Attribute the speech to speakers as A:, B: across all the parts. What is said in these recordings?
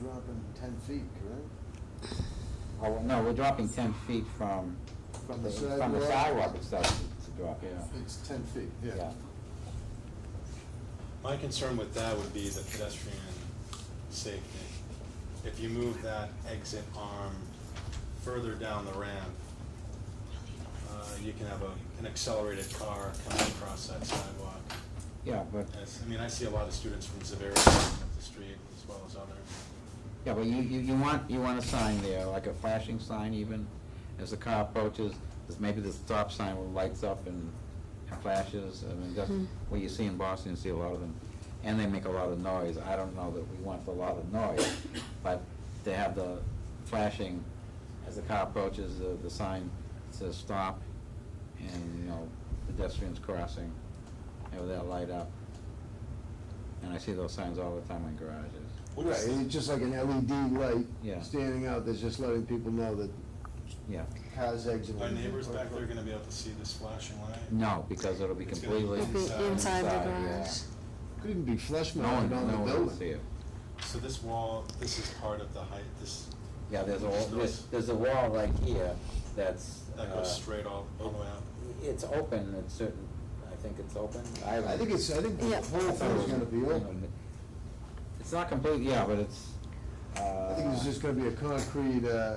A: dropping ten feet, correct?
B: Oh, well, no, we're dropping ten feet from.
A: From the
B: From the
A: sidewalk?
B: sidewalk itself to to drop, yeah.
A: It's ten feet, yeah.
B: Yeah,
C: My concern with that would be the pedestrian safety. If you move that exit arm further down the ramp, uh, you can have a, an accelerated car coming across that sidewalk.
B: yeah, but,
C: As- I mean, I see a lot of students from Zaviri up the street as well as other.
B: yeah, but you, you, you want, you want a sign there, like a flashing sign even, as the car approaches, there's maybe the stop sign will lights up and and flashes, I mean, that's what you see in Boston, you see a lot of them. And they make a lot of noise, I don't know that we want a lot of noise, but they have the flashing, as the car approaches, the, the sign says stop, and, you know, pedestrians crossing, and that light up. And I see those signs all the time in garages.
C: What
A: Right,
C: is the-
A: it's just like an LED light.
B: Yeah.
A: Standing out, that's just letting people know that
B: Yeah,
A: cars exiting.
C: Are neighbors back there gonna be able to see this flashing light?
B: no, because it'll be
C: It's gonna be
B: completely.
C: It'll
D: Mm-hmm,
C: be inside
D: the
B: yeah.
D: garage.
A: Could even be flush
B: No one,
A: mounted
B: no
A: on the
B: one will see
A: building.
B: it.
C: So this wall, this is part of the height, this,
B: Yeah, there's a, wall-
C: Just
B: there's,
C: those-
B: there's a wall right here that's.
C: that
B: uh,
C: goes straight all, all the way up.
B: It's open at certain, I think it's open.
A: I think it's, I think the
D: Yeah.
A: whole thing's gonna be open.
B: open. It's not complete, yeah, but it's, uh.
A: I think there's just gonna be a concrete, uh,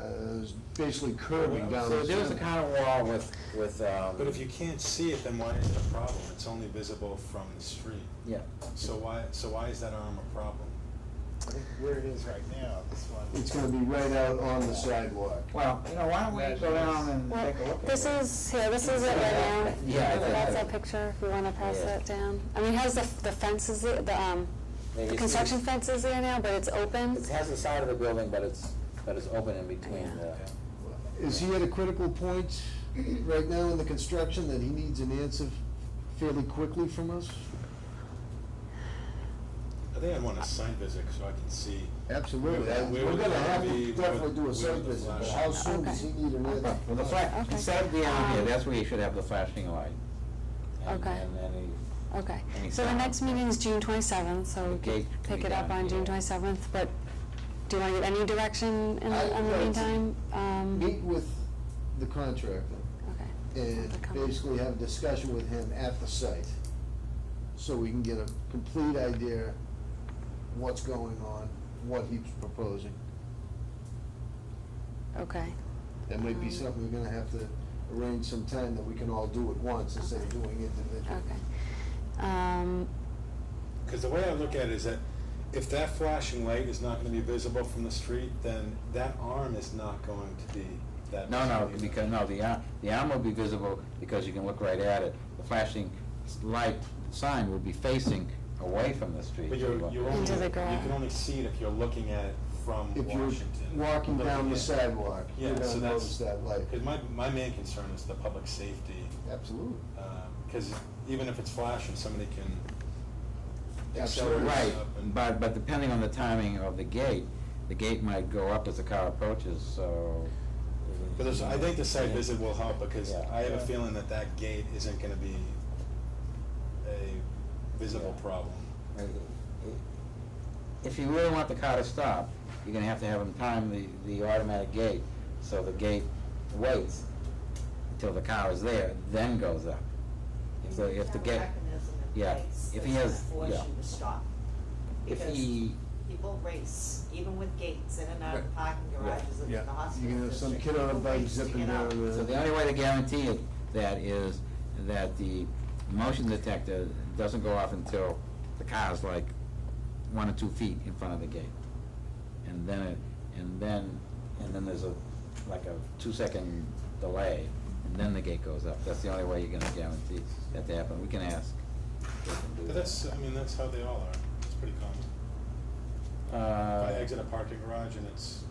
A: basically curving down
B: So
A: the
B: there's a
A: center.
B: kind of wall with, with, um.
C: But if you can't see it, then why is it a problem? It's only visible from the street.
B: Yeah,
C: So why, so why is that arm a problem?
E: where it is right now, this one.
A: It's gonna be right out on the sidewalk.
B: well, you know, why don't we go down and
D: Well,
B: take a look at it?
D: this is, yeah, this is it right now.
B: Yeah, I think
D: That's
B: that-
D: a picture, if you wanna pass
B: Yeah.
D: that down. I mean, it has the, the fences, the, the, um,
B: Yeah, you
D: the
B: see-
D: construction fences there now, but it's open.
B: It has the side of the building, but it's, but it's open in between the.
A: Is he at a critical point right now in the construction that he needs an answer fairly quickly from us?
C: I think I'd want a site visit so I can see.
A: Absolutely.
C: Where-
A: I-
C: where
A: We're
C: would
A: gonna
C: it
A: have
C: be
A: to definitely
C: with-
A: do a
C: with
A: site
C: the
A: visit, but
C: flash?
A: how soon does he
D: Okay.
A: need an answer?
B: Well, the flash,
D: Okay.
B: instead of the arm here,
D: Um,
B: that's where you should have the flashing light. And-
D: Okay.
B: And then
D: Okay,
B: Any
D: so the
B: sign.
D: next meeting is June twenty-seventh, so we
B: Okay,
D: could
B: can
D: pick
B: we
D: it up
B: down
D: on June
B: here?
D: twenty-seventh, but do you wanna get any direction in,
A: I-
D: the- in the
A: no, it's-
D: meantime? Um,
A: Meet with the contractor
D: Okay.
B: Uh,
A: and
D: Have to come.
A: basically have a discussion with him at the site, so we can get a complete idea what's going on, what he's proposing.
D: Okay,
A: That might be
D: Um,
A: something we're gonna have to arrange some time that we can all do at once instead of doing individually.
D: okay. Um,
C: Because the way I look at it is that if that flashing light is not gonna be visible from the street, then that arm is not going to be
B: the,
C: that.
B: no, no,
C: visible either.
B: because, no, the arm, the arm will be visible because you can look right at it. The flashing s- light sign will be facing away from the street.
C: But you're,
B: so
C: you're only,
D: Into the
C: you can
D: ground.
C: only see it if you're looking at it from
A: If
C: Washington.
A: you're walking down the sidewalk, you're
C: Yeah, so
A: gonna notice
C: that's,
A: that light.
C: because my, my main concern is the public safety.
A: Absolutely.
C: Because even if it's flashing, somebody can
A: Absolutely.
C: accelerate
B: Right,
C: up and.
B: but, but depending on the timing of the gate, the gate might go up as the car approaches, so.
C: But there's, I think the site
B: Yeah.
C: visit will help because
B: Yeah.
C: I have a feeling that that gate isn't gonna be a visible
B: Yeah.
C: problem.
B: If you really want the car to stop, you're gonna have to have them time the, the automatic gate, so the gate waits until the car is there, then goes up. If the, if the gate, yeah, if he has-
F: Force
B: yeah.
F: you to stop,
B: if
F: because
B: he,
F: people race, even with gates in and out
A: Right.
F: of parking garages and
A: Yeah.
F: in the hospital.
A: You can have some
F: district,
A: kid on a
F: people
A: bike
F: race to
A: zipping
F: get out.
A: down the-
B: so the only way to guarantee it, that is that the motion detector doesn't go off until the car's like one or two feet in front of the gate. And then it, and then, and then there's a, like a two-second delay, and then the gate goes up. That's the only way you're gonna guarantee that to happen. We can ask. if they can do
C: But that's, uh, I mean, that's how they all are. It's pretty common.
B: that.
C: If I
B: Uh,
C: exit a parking garage and it's,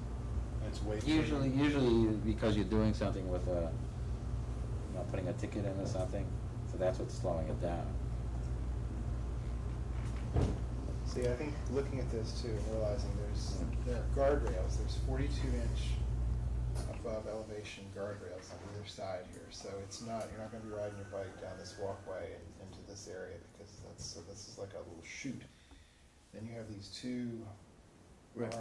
C: and it's waiting.
B: Usually, usually because you're doing something with a, you know, putting a ticket in or something, so that's what's slowing it down.
E: See, I think looking at this too, and realizing there's, there are guardrails, there's forty-two inch above elevation guardrails on either side here, so it's not, you're not gonna be riding your bike down this walkway and into this area, because that's, so this is like a little chute. Then you have these two